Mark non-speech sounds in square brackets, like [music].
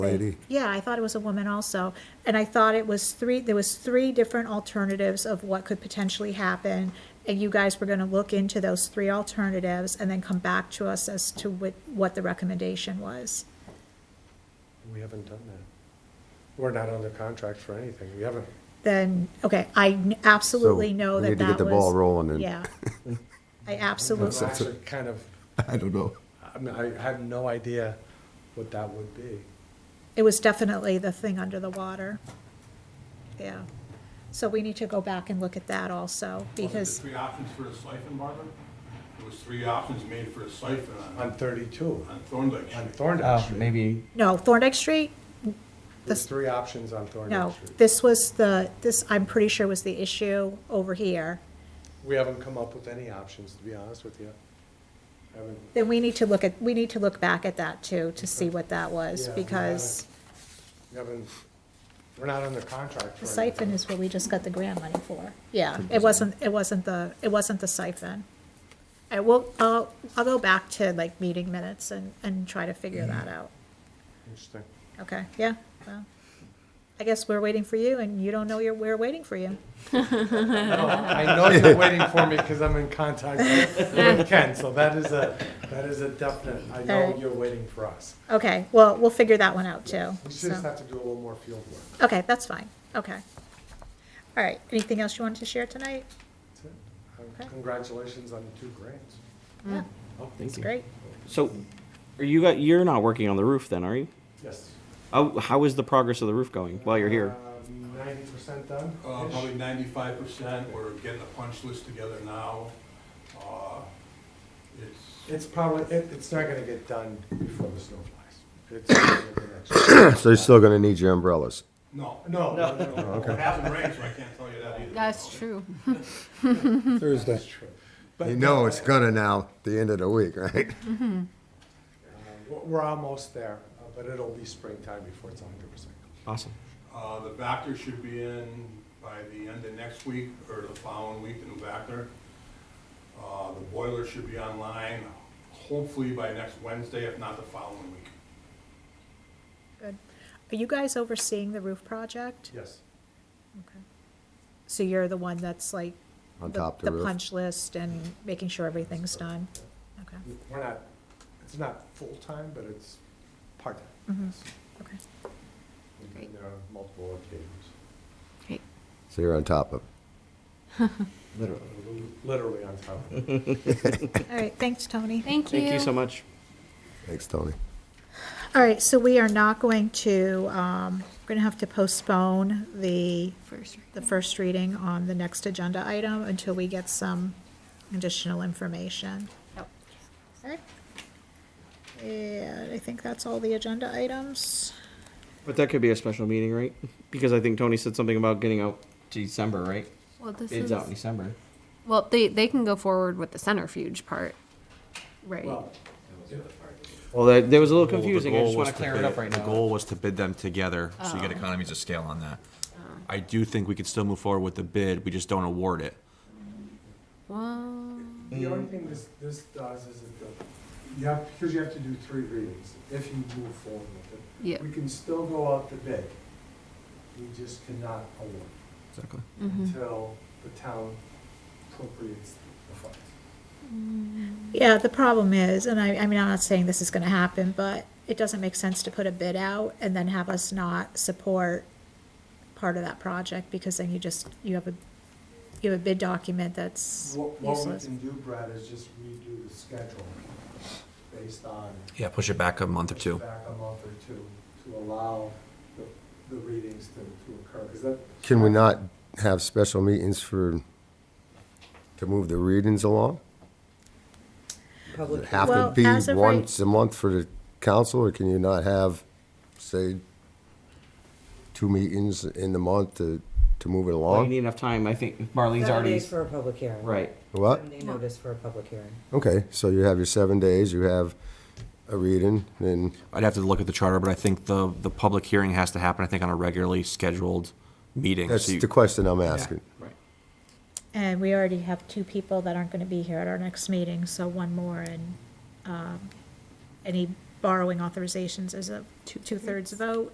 lady. Yeah, I thought it was a woman also. And I thought it was three, there was three different alternatives of what could potentially happen. And you guys were gonna look into those three alternatives and then come back to us as to what, what the recommendation was. We haven't done that. We're not under contract for anything. We haven't, Then, okay, I n- absolutely So, know we that that need was. to get the ball rolling and- [laughs] Yeah. I I'm absolutely, actually kind of, I don't know. I mean, I have no idea what that would be. it was definitely the thing under the water. Yeah. So we need to go back and look at that also, Was because, it the three options for the siphon, Barbara? There was three options made for a siphon on, On thirty-two, on Thorndike on Street. Thorndike Oh, Street. maybe, no, Thorndike Street, There's three options on Thorndike No, Street. this was the, this, I'm pretty sure was the issue over here. We haven't come up with any options, to be honest with you. Haven't, Then we need to look at, we need to look back at that too, to see what that was, Yeah, we because we haven't, we're not under contract the for anything. siphon is what we just got the grant money for. Yeah, it wasn't, it wasn't the, it wasn't the siphon. I will, I'll, I'll go back to like meeting minutes and, and try to figure Mm-hmm. that out. Interesting. Okay, yeah, well, I guess we're waiting for you and you don't know you're, we're waiting for you. No, I know you're waiting for me because I'm in contact with with Ken, so that is a, that is a definite, I know Alright. you're waiting for us. Okay, well, we'll figure that one out too. We just so. have to do a little more field work. Okay, that's fine, okay. All right, anything else you wanted to share tonight? That's it. Okay. Um, Congratulations on the two grants. Yeah, Thank it's you. great. So, are you got you're not working on the roof then, are you? Yes. How, how is the progress of the roof going while you're here? Uh, Ninety percent done? Uh, probably ninety-five percent, we're getting a punch list together now. Uh, It's, It's probably, it, it's not gonna get done before the snow flies. It's gonna be the next year. So you're still gonna need your umbrellas. no, [coughs] No, no, no, no. it hasn't rained, so I can't tell you that either. That's true. Thursday. That's true. You But know it's gonna now, the end of the week, right? uh, We're, we're almost there, uh, but it'll be springtime before it's hundred percent. Awesome. Uh, the Vactor should be in by the end of next week or the following week, the new Vactor. Uh, the boiler should be online hopefully by next Wednesday, if not the following week. Good. Are you guys overseeing the roof project? Yes. Okay. So you're the one that's like. On the- top of the The roof. punch list and making sure everything's done? Okay, We're not, it's not full-time, but it's part-time. Mhm. yes. okay. And there are multiple occasions, So you're on top of it. literally on top of it. All right, thanks, Tony. Thank you. Thank you so much. Thanks, Tony. All right, so we are not going to, um, we're gonna have to postpone the First. the first reading on the next agenda item until we get some additional information. Okay. And I think that's all the agenda items. But that could be a special meeting, right? Because I think Tony said something about getting out to December, right? Well, this Bids is, out in December. well, they, they can go forward with the centrifuge part. Right. Well, that, that was a little goal- the confusing. I goal just want was to clear bid- it up right The now. goal was to bid them together, so you get economies of scale on that. I do think we could still move forward with the bid, we just don't award it. Well, The only thing this, this does is it, go- you have, because you have to do three readings if you move forward with it. yeah. We can still go out to bid. We just cannot award Exactly. until the town appropriates the funds. Yeah, the problem is, and I, I mean, I'm not saying this is gonna happen, but it doesn't make sense to put a bid out and then have us not support part of that project, because then you just, you have a, you have a bid document that's What, what we useless. can do, Brad, is just redo the schedule based on Yeah, push it back a month or two. back a month or two to allow the, the readings to, to occur. Is that, Can we not have special meetings for, to move the readings along? Does it Have Well, to be as of right- once a month for the council, or can you not have, say, two meetings in the month to, to move it Well, you along? need enough time. I think Marlene's Seven already days for a public hearing. right. What? Seven day notice for a public hearing. Okay, so you have your seven days, you have a reading, then I'd have to look at the charter, but I think the, the public hearing has to happen, I think, on a regularly scheduled meeting. that's So you- the question I'm asking. Right. And we already have two people that aren't gonna be here at our next meeting, so one more and, um, any borrowing authorizations is a two-thirds vote.